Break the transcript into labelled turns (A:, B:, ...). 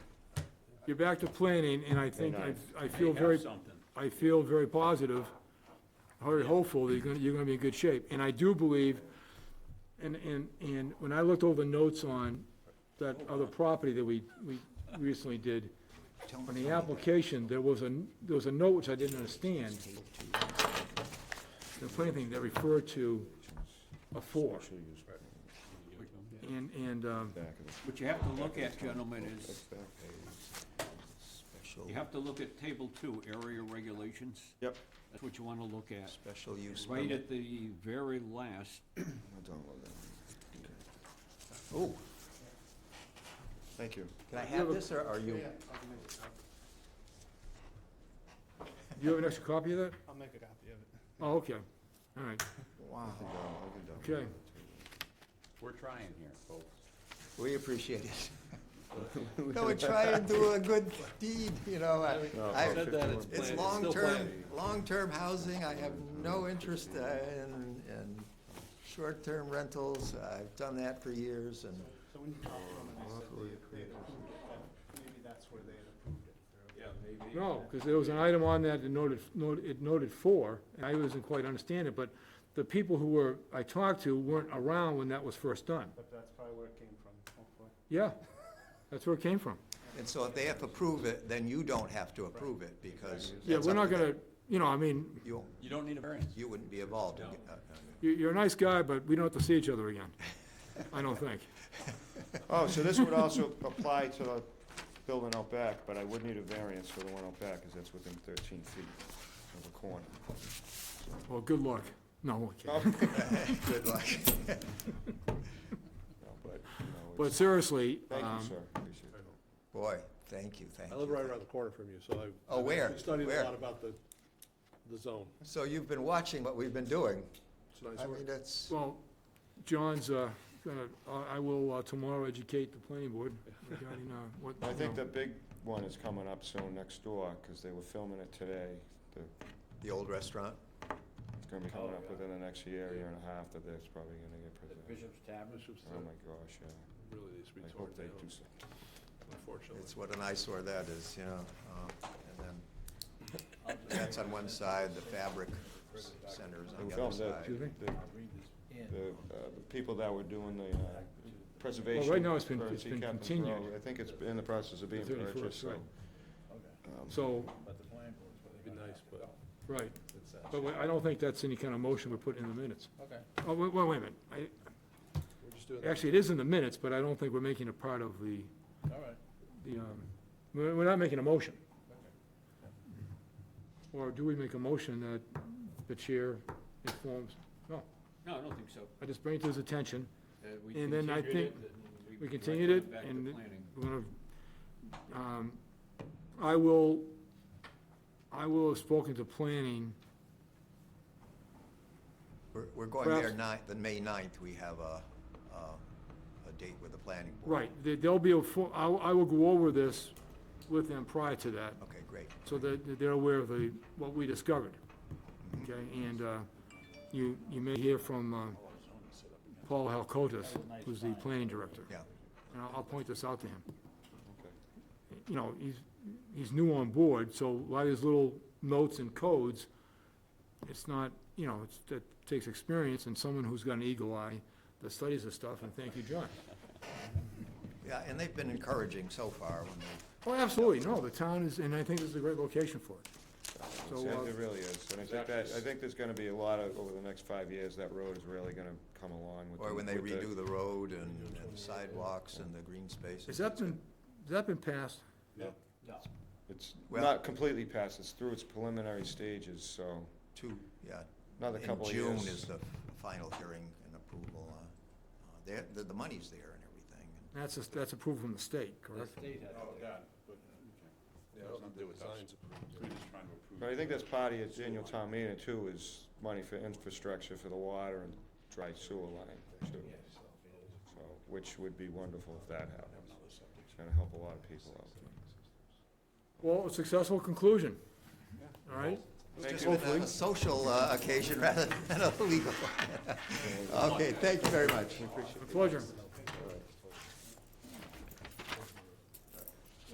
A: you're back to planning, and I think, I, I feel
B: They have
A: very,
B: something.
A: I feel very positive, very hopeful that you're gonna, you're gonna be in good shape. And I do believe, and, and, and when I looked over the notes on that other property that we, we recently did, on the application, there was a, there was a note which I didn't understand. The funny thing, that referred to a four. And, and, um,
B: What you have to look at, gentlemen, is, you have to look at table two, area regulations.
C: Yep.
B: That's what you wanna look at.
C: Special use
B: Right
C: permit.
B: at the very last,
C: I'll download that one. Okay. Oh. Thank you.
D: Can I have this, or are you?
A: you have an extra copy of that?
E: I'll make a copy of it.
A: Oh, okay, all right,
C: I
D: Wow,
C: can down- I can download
A: okay.
C: it.
B: we're trying here, folks.
D: we appreciate it. No, we try and do a good deed, you know, I-
C: No,
D: I-
C: about
F: Said that
C: 51.
F: it's
D: it's
F: Plan, it's still
D: long-term,
F: planning.
D: long-term housing, I have no interest uh, in, in short-term rentals, I've done that for years, and
E: So when you talked to them and they said they- they had approved it, maybe that's where they had approved it.
F: Yeah, maybe.
A: No, because there was an item on that that noted, noted- it noted four, and I wasn't quite understanding it, but the people who were, I talked to weren't around when that was first done.
E: But that's probably where it came from, hopefully.
A: Yeah, that's where it came from.
D: And so if they have to prove it, then you don't have to approve it, because.
A: Yeah,
D: that's
A: we're
D: up
A: not
D: to them.
A: gonna, you know, I mean,
D: You,
F: You don't need a variance.
D: you wouldn't be involved.
F: No.
D: Uh, uh,
A: you- you're a nice guy, but we don't have to see each other again. I don't think.
C: Oh, so this would also apply to the building out back, but I would need a variance for the one out back, because that's within thirteen feet of the corner.
A: Well, good luck. No, okay.
D: Good luck.
C: No, But, you know,
A: But seriously,
C: it's- thank
A: um,
C: you, sir, appreciate it.
D: Boy, thank you, thank
F: I
D: you.
F: live right around the corner from you, so I've.
D: Oh,
F: I've
D: where?
F: actually Studied
D: Where?
F: a lot about the, the zone.
D: So you've been watching what we've been doing.
F: It's nice
D: I
F: work.
D: mean, that's,
A: well, John's, uh, gonna, I I will uh, tomorrow educate the planning board regarding, uh, what,
C: I
A: you
C: think the big one is coming up soon next door, because they were filming it today. The-
D: the old restaurant.
C: It's gonna be coming
B: Oh,
C: up
B: yeah.
C: within the next year, year and a half, that that's probably gonna get
B: The
C: presented.
B: Bishop's Tavern.
F: Bishop's,
C: Oh,
F: uh,
C: my gosh, yeah.
F: really needs to be
C: I
F: torn
C: hope they
F: down,
C: do something.
F: unfortunately.
D: It's what an eyesore that is, you know. uh, And then that's on one side, the fabric centers on the
C: They
D: other
C: filmed
D: side.
A: Excuse me?
C: it. The- The, uh, the people that were doing the uh, preservation.
A: Well, right now it's been-
C: for
A: it's been
C: Sea Captain's
A: continued.
C: Row, I think it's in the process of being
A: The 31st,
C: purchased, so.
A: right. So,
F: It'd be nice, but
A: right.
F: it's, uh,
A: But we- I don't think that's any kind of motion we're putting in the minutes.
F: Okay.
A: Oh, wait, wait wait a minute. I-
F: we're just doing. that.
A: Actually, it is in the minutes, but I don't think we're making it part of the,
F: All right.
A: the, um, we're we're not making a motion. Or do we make a motion that the chair informs? No,
B: No, I don't think so.
A: I just bring it to his attention.
B: Uh, we
A: And then I
B: continued
A: think
B: it, and
A: we
B: directed
A: continued it,
B: back to
A: and it-
B: planning.
A: We're gonna, um, I will, I will have spoken to planning.
D: We're, we're going there
A: Perhaps-
D: ninth, the May ninth, we have a, a, a date with the planning board.
A: Right, there- there'll be a, full- I will I will go over this with them prior to that.
D: Okay, great.
A: so that that they're aware of the, what we discovered. Okay, and uh, you, you may hear from uh, Paul Halkotis, who's the planning director.
D: Yeah.
A: And I'll, I'll point this out to him. You know, he's, he's new on board, so a lot of these little notes and codes, it's not, you know, it's, that takes experience and someone who's got an eagle eye that studies this stuff, and thank you, John.
D: Yeah, and they've been encouraging so far when they,
A: Oh, absolutely, no, the town is, and I think this is a great location for it. So,
C: Yeah,
A: uh,
C: It really is, and I think that, I think there's gonna be a lot of, over the next five years, that road is really gonna come along with.
D: or
C: the-
D: when they
C: with the-
D: redo the road and and sidewalks and the green spaces.
A: has that been, has that been passed?
C: It's
D: Well-
C: not completely passed, it's through its preliminary stages, so
D: Two, yeah.
C: another couple of
D: In
C: years.
D: June is the final hearing and approval. uh, uh, There, the, the money's there and everything.
A: That's, a- that's approved from the state,
B: The
A: correct?
B: state has
F: Oh,
B: it.
F: uh, Yeah, I don't do with signs.
C: But I think that's part of your annual town meeting too, is money for infrastructure for the water and dry sewer line too. So, which would be wonderful if that happens. It's gonna help a lot of people out.
A: Well, a successful conclusion. All right?
D: It's
C: Thank
D: just
C: you.
D: been a- a social uh, occasion rather than a legal. Okay, thank you very much.
A: A pleasure.